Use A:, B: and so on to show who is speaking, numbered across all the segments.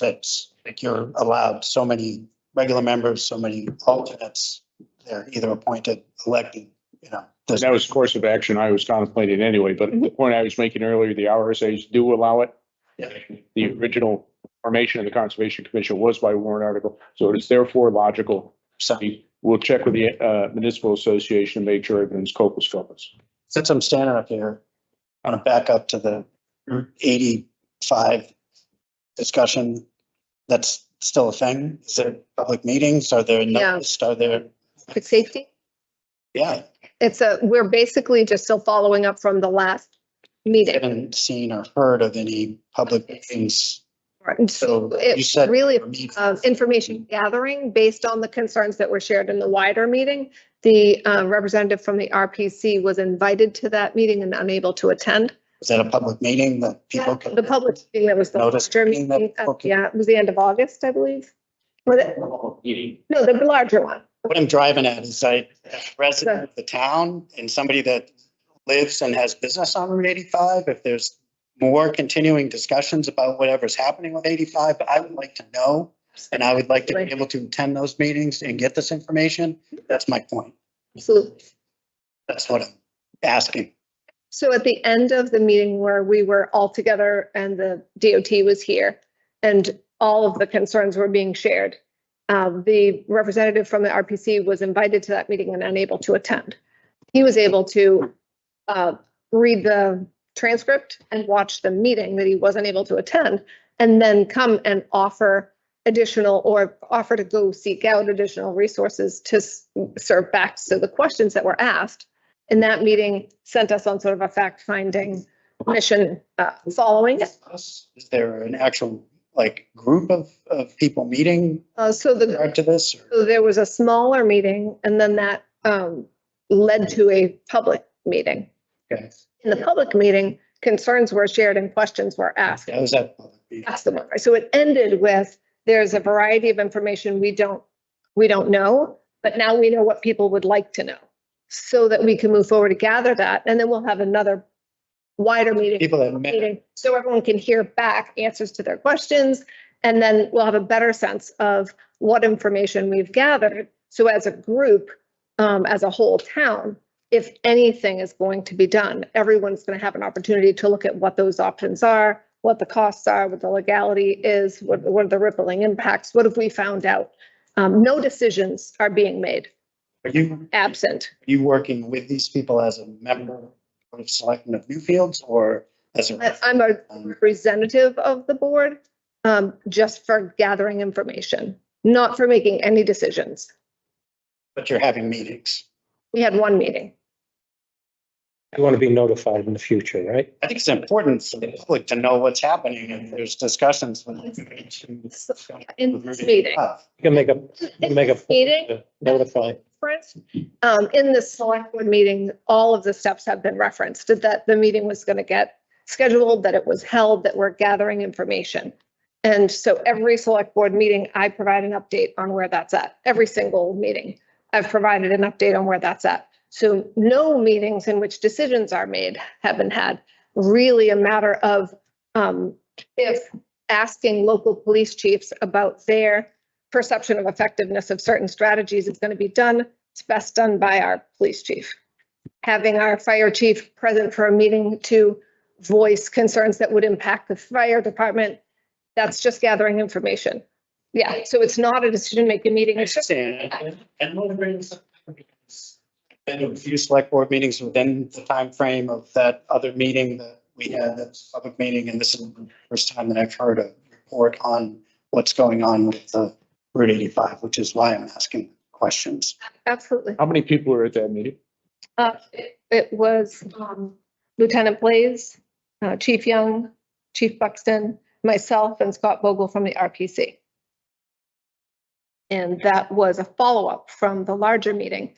A: RSA's. Like you're allowed so many regular members, so many alternates. They're either appointed, elected, you know. this-
B: That was the course of action I was contemplating anyway, but the point I was making earlier, the RSA's do allow it.
A: Yeah.
B: The original formation of the Conservation Commission was by warrant article, so it is therefore logical.
A: So
B: We'll check with the uh, municipal association, and make sure everything's copus copus.
A: since I'm standing up here, I'm gonna back up to the Route eighty-five discussion. That's still a thing? Is there public meetings? Are there notice? Are there,
C: Public safety?
A: yeah,
C: It's a, we're basically just still following up from the last meeting.
A: haven't seen or heard of any public meetings. So you
C: It's
A: said. Mm-hmm.
C: really
A: there were meetings.
C: uh, information gathering based on the concerns that were shared in the wider meeting. The uh, representative from the RPC was invited to that meeting and unable to attend.
A: Is that a public meeting that people can?
C: The public meeting that was the
A: Notice
C: larger
A: meeting that-
C: meeting, uh,
A: okay.
C: yeah, it was the end of August, I believe. Was it? No, the larger one.
A: What I'm driving at is I, as a resident of the town and somebody that lives and has business on Route eighty-five, if there's more continuing discussions about whatever's happening with eighty-five, I would like to know. And I would like to be able to attend those meetings and get this information. That's my point.
C: Absolutely.
A: That's what I'm asking.
C: So at the end of the meeting where we were all together and the DOT was here and all of the concerns were being shared, uh, the representative from the RPC was invited to that meeting and unable to attend. He was able to uh, read the transcript and watch the meeting that he wasn't able to attend and then come and offer additional or offer to go seek out additional resources to s- serve back to the questions that were asked in that meeting sent us on sort of a fact-finding mission uh, following. it.
A: Is there an actual, like, group of, of people meeting
C: Uh, So
A: with
C: the,
A: regard to this? or-
C: so there was a smaller meeting and then that um, led to a public meeting.
A: Okay,
C: In the public meeting, concerns were shared and questions were asked.
A: that was at public meeting.
C: That's the one. So it ended with, there's a variety of information we don't, we don't know, but now we know what people would like to know. So that we can move forward to gather that, and then we'll have another wider meeting.
A: People that met.
C: meeting, so everyone can hear back answers to their questions. And then we'll have a better sense of what information we've gathered. So as a group, um, as a whole town, if anything is going to be done, everyone's going to have an opportunity to look at what those options are, what the costs are, what the legality is, what, what are the rippling impacts? What have we found out? Um, no decisions are being made
A: Are you
C: absent.
A: you working with these people as a member of Selectmen of Newfields or as
C: I-
A: a,
C: I'm a
A: um,
C: representative of the board, um, just for gathering information, not for making any decisions.
A: but you're having meetings?
C: We had one meeting.
D: You want to be notified in the future, right?
A: I think it's important for the public to know what's happening and there's discussions. with-
C: So, In this meeting,
D: You can make a, you can make a.
C: Meeting?
D: uh, Notify.
C: reference, um, in the select board meeting, all of the steps have been referenced, that the meeting was going to get scheduled, that it was held, that we're gathering information. And so every select board meeting, I provide an update on where that's at. Every single meeting, I've provided an update on where that's at. So no meetings in which decisions are made have been had. Really a matter of, um, if asking local police chiefs about their perception of effectiveness of certain strategies is going to be done. It's best done by our police chief. Having our fire chief present for a meeting to voice concerns that would impact the fire department, that's just gathering information. Yeah, so it's not a decision-making meeting.
A: I
C: It's just,
A: understand. And one of the reasons- been to a few select board meetings within the time frame of that other meeting that we had, that's public meeting, and this is the first time that I've heard a report on what's going on with the Route eighty-five, which is why I'm asking questions.
C: absolutely.
B: How many people were at that meeting?
C: Uh, it- It was um, Lieutenant Blaze, uh, Chief Young, Chief Buxton, myself, and Scott Vogel from the RPC. And that was a follow-up from the larger meeting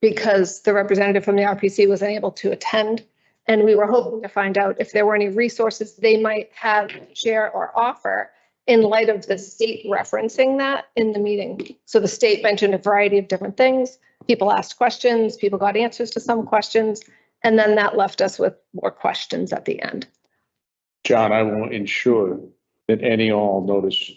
C: because the representative from the RPC was unable to attend. And we were hoping to find out if there were any resources they might have, share, or offer in light of the state referencing that in the meeting. So the state mentioned a variety of different things people asked questions, people got answers to some questions, and then that left us with more questions at the end.
B: John, I will ensure that any all notice